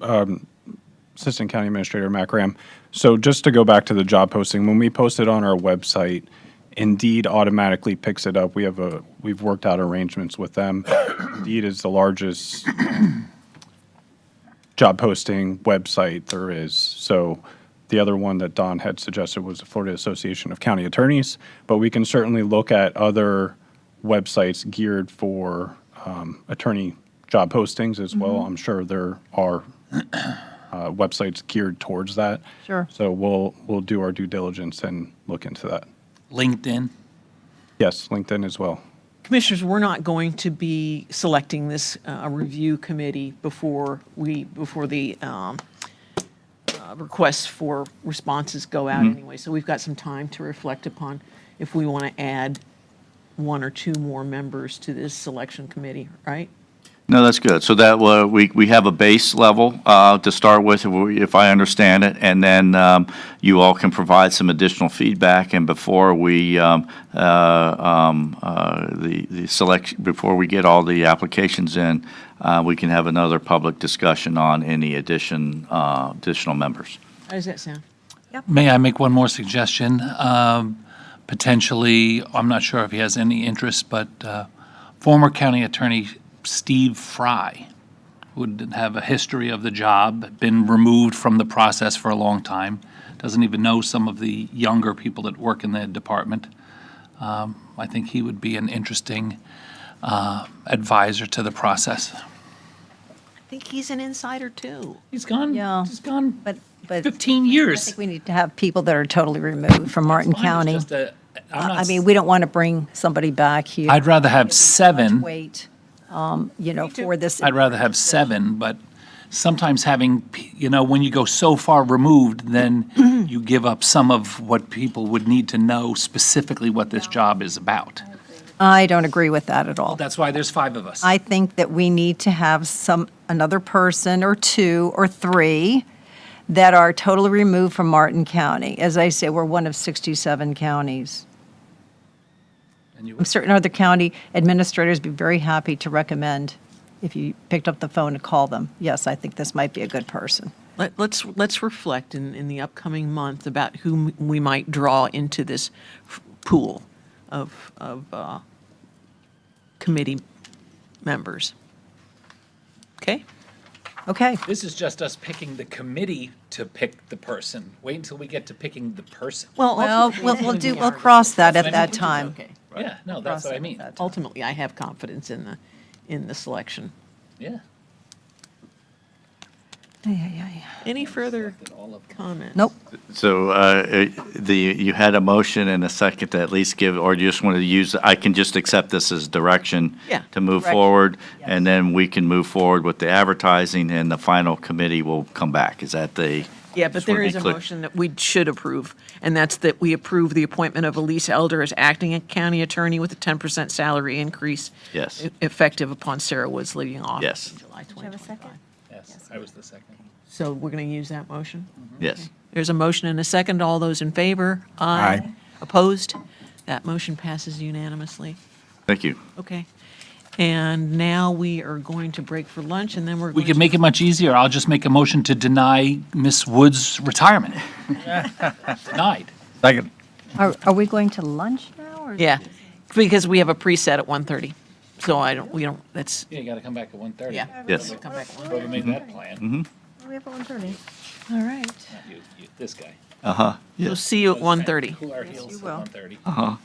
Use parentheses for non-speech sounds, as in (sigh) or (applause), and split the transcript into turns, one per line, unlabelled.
um, Assistant County Administrator Mac Ram. So just to go back to the job posting, when we post it on our website, Indeed automatically picks it up. We have a, we've worked out arrangements with them. Indeed is the largest job posting website there is. So the other one that Don had suggested was the Florida Association of County Attorneys, but we can certainly look at other websites geared for um, attorney job postings as well. I'm sure there are uh, websites geared towards that.
Sure.
So we'll we'll do our due diligence and look into that.
LinkedIn.
Yes, LinkedIn as well.
Commissioners, we're not going to be selecting this uh, review committee before we, before the um, uh, requests for responses go out anyway. So we've got some time to reflect upon if we want to add one or two more members to this selection committee, right?
No, that's good. So that, uh, we, we have a base level uh, to start with, if we- if I understand it, and then um, you all can provide some additional feedback, and before we, um, uh, um, uh, the, the selection, before we get all the applications in, uh, we can have another public discussion on any addition, uh, additional members.
How does that sound?
May I make one more suggestion? Um, Potentially, I'm not sure if he has any interest, but uh, former county attorney Steve Fry would have a history of the job, been removed from the process for a long time, doesn't even know some of the younger people that work in the department. Um, I think he would be an interesting uh, advisor to the process.
I think he's an insider too.
He's gone,
Yeah.
he's gone
But, but.
15
I
years.
think we need to have people that are totally removed from Martin
Mine is
County.
just a- I'm not
I
s-
mean, we don't want to bring somebody back here.
I'd rather have seven.
Wait, um, you know,
too.
for this.
I'd rather have seven, but sometimes having, p- you know, when you go so far removed,
(clears throat)
then you give up some of what people would need to know specifically what this job is about.
I don't agree with that at all.
That's why there's five of us.
I think that we need to have some, another person or two or three that are totally removed from Martin County. As I say, we're one of 67 counties.
And you-
I'm certain other county administrators would be very happy to recommend if you picked up the phone to call them. Yes, I think this might be a good person.
Let, let's let's reflect in, in the upcoming month about whom we might draw into this f- pool of of uh, committee members. Okay.
Okay.
This is just us picking the committee to pick the person. Wait until we get to picking the person.
Well, we'll, we'll do, we'll cross that at that time.
Okay.
Yeah, no, that's what I mean.
Ultimately, I have confidence in the in the selection.
Yeah.
Any further
All of them.
comments?
Nope.
So uh, it- the, you had a motion and a second to at least give, or you just wanted to use, I can just accept this as direction
Yeah.
to move
Direction,
forward,
yes.
and then we can move forward with the advertising, and the final committee will come back. Is that the?
Yeah, but
just wanna
there
be
is a
clear.
motion that we should approve, and that's that we approve the appointment of Elise Elder as acting county attorney with a ten percent salary increase.
Yes.
e- Effective upon Sarah Woods leaving office.
Yes.
in July
you have a
2025.
second?
Yes, I was the second.
So we're going to use that motion?
Yes.
There's a motion and a second. All those in favor?
Aye.
Opposed? That motion passes unanimously.
Thank you.
Okay. And now we are going to break for lunch, and then we're
We
going to.
can make it much easier. I'll just make a motion to deny Miss Wood's retirement. Denied.
Second.
Are, are we going to lunch now? or-
Yeah, because we have a preset at 1:30, so I don't, we don't, that's,
Yeah, you gotta come back at 1:30.
yeah.
Yes.
Come back at 1:30.
Whoever made that plan,
We have one thirty. All right.
you, you, this guy.
Uh-huh.
We'll
Yes.
see you at 1:30.
Cool our heels at
will.
1:30.